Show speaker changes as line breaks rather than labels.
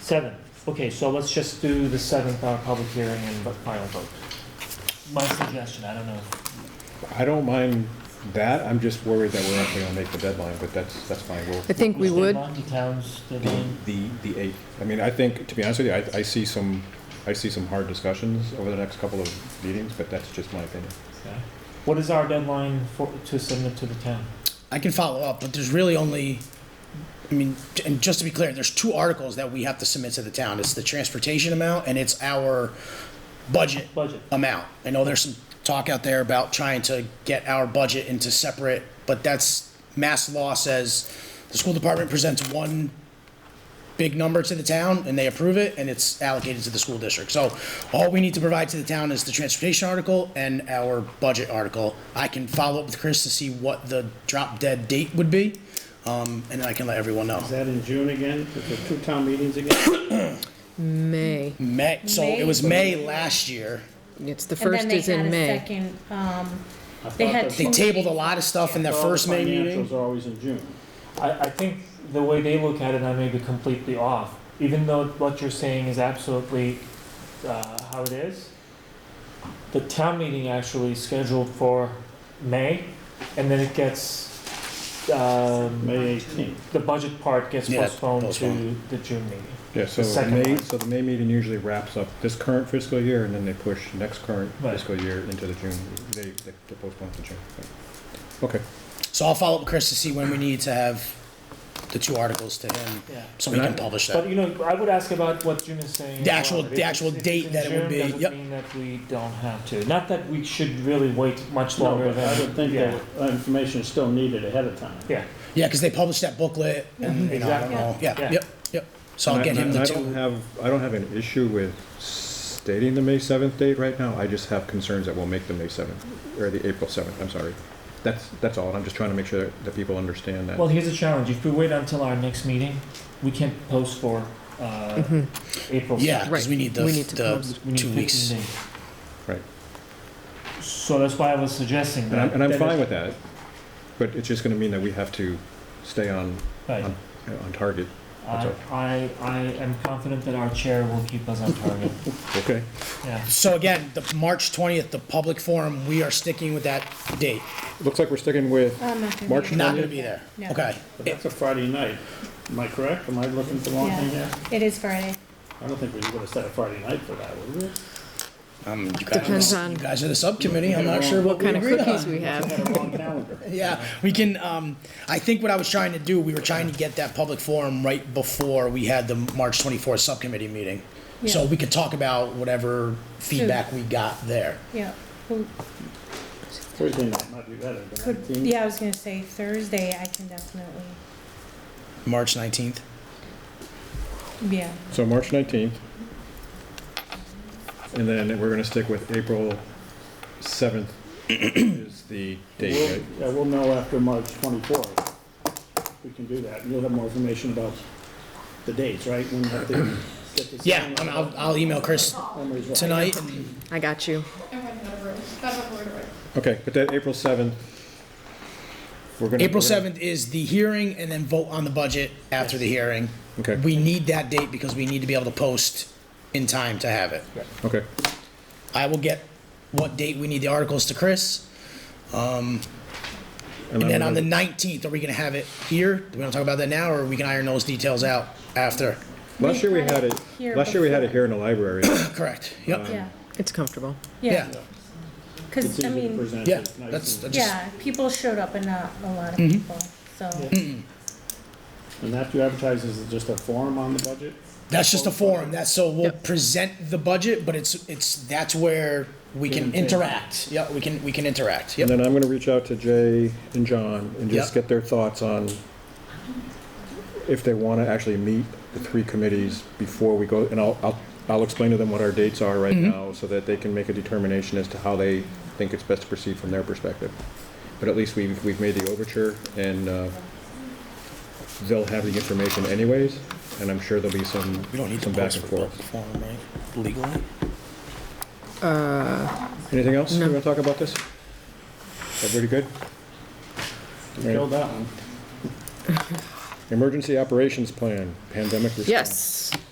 Seven, okay, so let's just do the seventh, uh, public hearing and the final vote. My suggestion, I don't know.
I don't mind that, I'm just worried that we're not gonna make the deadline, but that's, that's fine, we'll,
I think we
Which
would.
deadline? The town's
the,
deadline?
the, the eight. I mean, I think, to be honest with you, I, I see some, I see some hard discussions over the next couple of meetings, but that's just my opinion.
Okay. What is our deadline for, to submit to the town?
I can follow up, but there's really only, I mean, and just to be clear, there's two articles that we have to submit to the town. It's the transportation amount and it's our budget
Budget.
amount. I know there's some talk out there about trying to get our budget into separate, but that's, mass law says the school department presents one big number to the town and they approve it and it's allocated to the school district. So all we need to provide to the town is the transportation article and our budget article. I can follow up with Chris to see what the drop dead date would be, um, and then I can let everyone know.
Is that in June again? Is there two town meetings again?
May.
May, so it was May last year.
It's the
And
first
then
is
they had
in
a
May.
second, um,
I
They
thought
had
that
They tabled a lot of stuff in their
all
first May meeting.
Financials are always in June.
I, I think the way they look at it, I may be completely off. Even though what you're saying is absolutely uh, how it is, the town meeting actually is scheduled for May, and then it gets, um,
May 18th.
the budget part gets
Yeah,
postponed to
postponed.
the June meeting.
Yeah, so
The
the
second
May,
one.
so the May meeting usually wraps up this current fiscal year, and then they push next current
Right.
fiscal year into the June, they, they they postpone to June. Okay,
So I'll follow up with Chris to see when we need to have the two articles to him,
Yeah.
so we can publish
But
that.
you know, I would ask about what Jim is saying.
The
as
actual-
well.
the
If it's-
actual
if it's
date
in
that it
June,
would be, yep.
Doesn't mean that we don't have to. Not that we should really wait much
No,
longer
but
than.
I would think
yeah.
that information is still needed ahead of time.
Yeah,
Yeah, because they published that booklet, and, you know, I don't
Exactly.
know,
Yeah.
yeah, yep, yep. So I'll get
And I-
him
and
the
I don't
two.
have, I don't have an issue with stating the May seventh date right now, I just have concerns that we'll make the May seventh, or the April seventh, I'm sorry. That's, that's all, and I'm just trying to make sure that, that people understand that.
well, here's a challenge. If we wait until our next meeting, we can't post for, uh, April.
Yeah, because we
Right.
need the,
We need to
the
post.
We need
two
15
weeks.
days.
Right.
So that's why I was suggesting
And I'm,
that.
and I'm
that
fine
is-
with that, but it's just gonna mean that we have to stay on,
Right.
on, on target.
I, I, I am confident that our chair will keep us on target.
Okay.
Yeah.
So again, the March twentieth, the public forum, we are sticking with that date.
Looks like we're sticking with
Oh, I'm not gonna
March
be-
Not gonna be there.
No.
Okay.
But that's a Friday night. Am I correct? Am I looking at the wrong thing here?
It is Friday.
I don't think we would have set a Friday night for that, would we?
Um, you
Depends
guys,
on-
you guys are the subcommittee. I'm not sure what we
Kind of
agreed
cookies
on.
we have.
Had a wrong calendar.
Yeah, we can, um, I think what I was trying to do, we were trying to get that public forum right before we had the March twenty-fourth subcommittee meeting. So
Yeah.
we could talk about whatever feedback we got there.
Yeah. Well,
Thursday night might be better. the
could-
19th.
Yeah, I was gonna say Thursday, I can definitely,
March nineteenth.
yeah.
So March 19th. And then we're going to stick with April 7th is the date,
We'll-
right?
Yeah, we'll know after March 24th. We can do that. You'll have more information about the dates, right? When have to get this.
Yeah, I'm- I'll, I'll email Chris
When we resolve.
tonight.
I got you.
Okay, but that April 7th, we're going to.
April seventh is the hearing and then vote on the budget after the hearing.
Okay.
We need that date because we need to be able to post in time to have it.
Okay,
I will get what date we need the articles to Chris.
and
And
then
then
we're
on the
gonna-
nineteenth, are we gonna have it here? Do we wanna talk about that now or we can iron those details out after?
last year we had it,
Here
last year we had it here
before.
in the library.
Correct, yep,
Yeah,
It's comfortable.
yeah,
yeah,
It's
cause I
easy to
mean,
present.
yeah,
It's nice
that's,
and-
that's just,
yeah, people showed up and not a lot of
Mm-hmm.
people, so.
And that you advertise is just a forum on the budget?
that's just a forum, that's, so we'll
Yep.
present the budget, but it's, it's, that's where we
Give
can
and take.
interact, yeah, we can, we can interact,
And
yep.
then I'm going to reach out to Jay and John and just
Yep.
get their thoughts on if they want to actually meet the three committees before we go, and I'll, I'll, I'll explain to them what our dates are right
Mm-hmm.
now so that they can make a determination as to how they think it's best to proceed from their perspective. But at least we've, we've made the overture and, uh, they'll have the information anyways, and I'm sure there'll be some,
We don't need to
some back
post
and
for public
forth.
forum, right, legally?
Uh,
Anything else you
No.
want to talk about this? Everybody good? Mary?
Kill that one.
Emergency Operations Plan, Pandemic Response.
Yes.